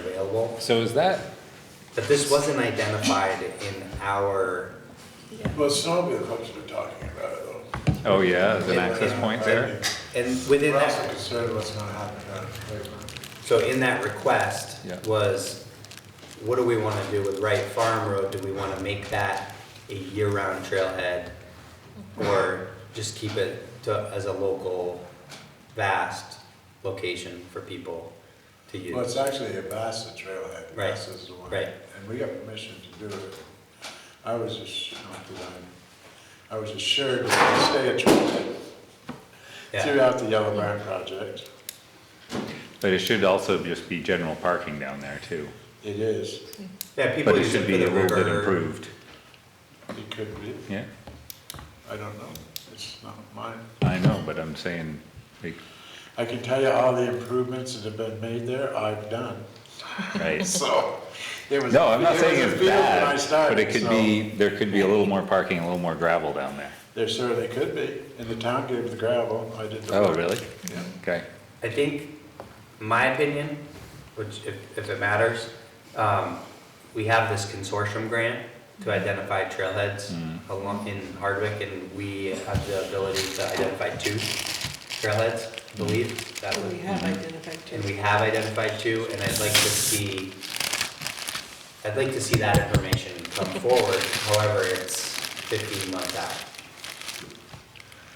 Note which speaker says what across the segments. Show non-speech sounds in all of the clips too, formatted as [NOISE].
Speaker 1: available.
Speaker 2: So is that,
Speaker 1: But this wasn't identified in our,
Speaker 3: Well, Snowmobile clubs were talking about it though.
Speaker 2: oh yeah, is an access point there?
Speaker 1: and within
Speaker 3: We're also
Speaker 1: that,
Speaker 3: concerned what's gonna happen down at the playground.
Speaker 1: so in that request
Speaker 2: Yeah.
Speaker 1: was, what do we wanna do with Wright Farm Road? Do we wanna make that a year-round trailhead? Or just keep it to, as a local, vast location for people to use?
Speaker 3: Well, it's actually a Bassett trailhead,
Speaker 1: Right,
Speaker 3: Bassett is the one.
Speaker 1: right.
Speaker 3: And we got permission to do it. I was ass- not that I, I was assured that they stay a trailhead
Speaker 1: Yeah.
Speaker 3: throughout the Yellow Barn project.
Speaker 2: But it should also just be general parking down there too.
Speaker 3: It is,
Speaker 1: Yeah, people
Speaker 2: But it
Speaker 1: use it
Speaker 2: should
Speaker 1: for
Speaker 2: be
Speaker 1: the
Speaker 2: a little bit
Speaker 1: river.
Speaker 2: improved,
Speaker 3: it could be,
Speaker 2: yeah?
Speaker 3: I don't know, it's not mine.
Speaker 2: I know, but I'm saying, like,
Speaker 3: I can tell you all the improvements that have been made there, I've done,
Speaker 2: right?
Speaker 3: [LAUGHS] so. it was-
Speaker 2: No, I'm
Speaker 3: it
Speaker 2: not
Speaker 3: was a
Speaker 2: saying it's
Speaker 3: field when I
Speaker 2: bad,
Speaker 3: started,
Speaker 2: but it could
Speaker 3: so
Speaker 2: be, there could be a little more parking, a little more gravel down there.
Speaker 3: There certainly could be, and the town gave the gravel, I did the.
Speaker 2: Oh,
Speaker 3: work.
Speaker 2: really?
Speaker 3: Yeah.
Speaker 2: Okay,
Speaker 1: I think, my opinion, which if, if it matters, um, we have this consortium grant to identify trailheads along in Hardwick and we have the ability to identify two trailheads, I believe. that
Speaker 4: Well,
Speaker 5: Oh,
Speaker 1: would-
Speaker 4: We have identified
Speaker 1: And
Speaker 4: two.
Speaker 1: we have identified two and I'd like to see, I'd like to see that information come forward, however, it's fifteen months out.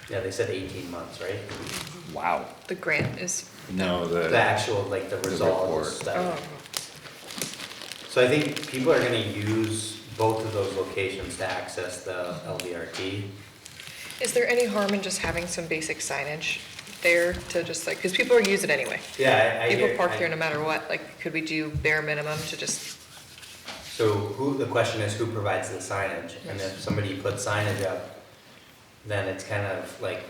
Speaker 1: Yeah, they said eighteen months, right?
Speaker 2: wow.
Speaker 5: The grant is,
Speaker 2: No,
Speaker 1: The
Speaker 2: the,
Speaker 1: actual, like, the
Speaker 2: The
Speaker 1: results
Speaker 2: report.
Speaker 1: that.
Speaker 5: oh,
Speaker 1: So I think people are gonna use both of those locations to access the LVRT.
Speaker 5: is there any harm in just having some basic signage there to just like, because people are use it anyway.
Speaker 1: Yeah, I, I
Speaker 5: People
Speaker 1: hear-
Speaker 5: park
Speaker 1: I-
Speaker 5: there no matter what, like, could we do bare minimum to just,
Speaker 1: So who, the question is who provides the signage? And if somebody puts signage up, then it's kind of like,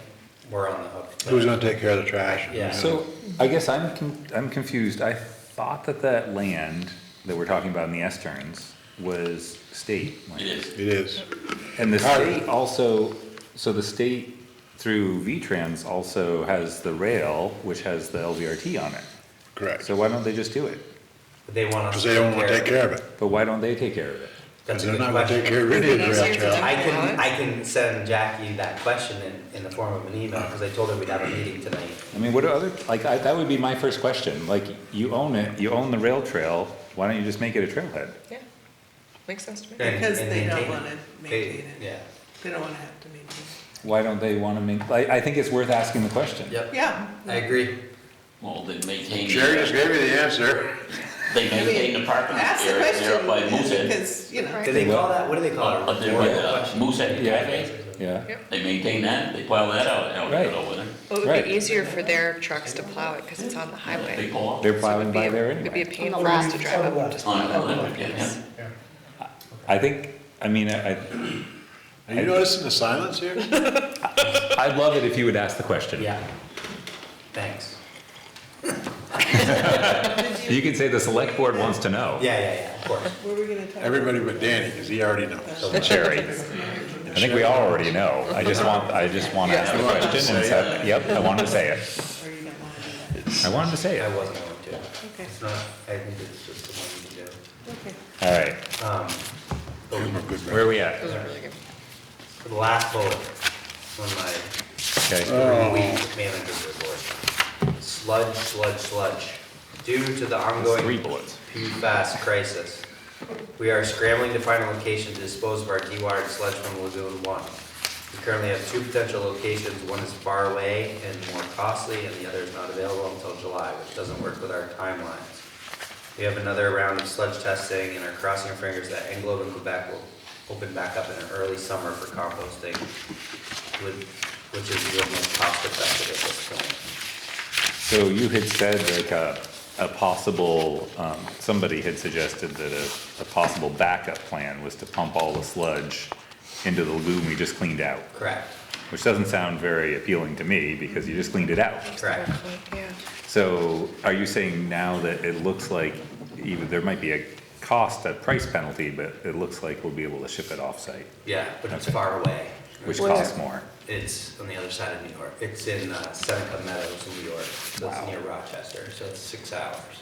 Speaker 1: we're on the hook.
Speaker 3: Who's gonna take care of the trash?
Speaker 1: Yeah.
Speaker 2: so I guess I'm, con- I'm confused. I thought that that land that we're talking about in the S turns was state. land.
Speaker 3: It is.
Speaker 2: And the
Speaker 3: Got
Speaker 2: state also, so the state through V-Trans also has the rail, which has the LVRT on it.
Speaker 6: Correct,
Speaker 2: So why don't they just do it?
Speaker 1: But They want
Speaker 6: because
Speaker 1: us to
Speaker 6: they
Speaker 1: take care
Speaker 6: don't
Speaker 1: of
Speaker 6: want to take
Speaker 1: it.
Speaker 6: care of it,
Speaker 2: But why don't they take care of it?
Speaker 6: because
Speaker 1: That's
Speaker 6: they're
Speaker 1: a good
Speaker 6: not going to take
Speaker 1: question.
Speaker 6: care of any of the
Speaker 5: Easier
Speaker 6: rail
Speaker 5: to
Speaker 6: trail.
Speaker 5: take.
Speaker 1: I can, I can send Jackie that question in, in the form of an email, because I told her we'd have a meeting tonight.
Speaker 2: I mean, what are other, like, I, that would be my first question. Like, you own it, you own the rail trail, why don't you just make it a trailhead?
Speaker 5: yeah, makes sense to me.
Speaker 1: and-
Speaker 4: Because
Speaker 1: and
Speaker 4: they don't
Speaker 1: maintain it.
Speaker 4: wanna
Speaker 1: They-
Speaker 4: maintain it.
Speaker 1: Yeah,
Speaker 4: They don't wanna have to maintain.
Speaker 2: Why don't they wanna make, I, I think it's worth asking the question.
Speaker 1: yep,
Speaker 4: Yeah.
Speaker 1: I agree.
Speaker 7: Well, they maintain,
Speaker 6: Sherry just
Speaker 7: the-
Speaker 6: gave me the answer.
Speaker 7: they maintain the parking
Speaker 4: Ask the
Speaker 7: area there
Speaker 4: question,
Speaker 7: by Moosehead.
Speaker 4: because, you know,
Speaker 5: Right.
Speaker 1: Do they
Speaker 2: Well-
Speaker 1: call that, what do they call it?
Speaker 7: Up there by the Moosehead
Speaker 2: Yeah,
Speaker 7: Cafe,
Speaker 2: yeah,
Speaker 5: Yep.
Speaker 7: they maintain that, they plow that out, out
Speaker 2: Right.
Speaker 7: over there.
Speaker 5: Well, it
Speaker 2: Right.
Speaker 5: would be easier for their trucks to plow it because it's on the
Speaker 7: They
Speaker 5: highway.
Speaker 7: pull
Speaker 2: they're
Speaker 7: up
Speaker 2: plowing by there
Speaker 5: It'd be a
Speaker 2: anyway.
Speaker 5: pain for us to drive up and just
Speaker 7: on
Speaker 5: plow it.
Speaker 7: Atlantic, yeah, yeah.
Speaker 2: I think, I mean, I,
Speaker 3: Are you noticing the silence here?
Speaker 2: I'd love it if you would ask the question.
Speaker 1: Yeah. Thanks.
Speaker 2: You can say the select board wants to know.
Speaker 1: Yeah, yeah, yeah, of [LAUGHS] course.
Speaker 4: what were we gonna talk about?
Speaker 3: Everybody but Danny, because he already knows.
Speaker 2: Sherry. I think we all already know. I just want, I just want to ask the
Speaker 3: Yeah.
Speaker 2: question and say, yep, I wanted to say it.
Speaker 4: Or you don't wanna do that?
Speaker 2: I wanted to say
Speaker 1: I
Speaker 2: it.
Speaker 1: wasn't going to.
Speaker 4: Okay,
Speaker 1: It's not, I think it's just the one
Speaker 4: okay.
Speaker 2: All right,
Speaker 1: you do. Um, but
Speaker 2: where are we at?
Speaker 5: Those are really good.
Speaker 1: for the last bullet on
Speaker 2: Okay,
Speaker 1: my week manager's report. Sludge, sludge, sludge. Due to the
Speaker 2: it's three
Speaker 1: ongoing
Speaker 2: bullets.
Speaker 1: PFAS crisis. We are scrambling to find a location to dispose of our dewatered sludge from Lagoon One. We currently have two potential locations, one is far away and more costly, and the other is not available until July, which doesn't work with our timelines. We have another round of sludge testing and are crossing our fingers that Englobe and Quebec will open back up in an early summer for composting, with- which is the most cost effective at this point.
Speaker 2: So you had said like a, a possible, um, somebody had suggested that a, a possible backup plan was to pump all the sludge into the lagoon we just cleaned out,
Speaker 1: Correct,
Speaker 2: which doesn't sound very appealing to me because you just cleaned it out.
Speaker 1: correct.
Speaker 5: Yeah.
Speaker 2: So are you saying now that it looks like even, there might be a cost, a price penalty, but it looks like we'll be able to ship it off-site,
Speaker 1: Yeah, but it's
Speaker 2: Okay.
Speaker 1: far away.
Speaker 2: which
Speaker 5: Where?
Speaker 2: costs more?
Speaker 1: It's on the other side of New York. It's in uh, Seneca Meadows, New York. So it's near Rochester, so it's six hours.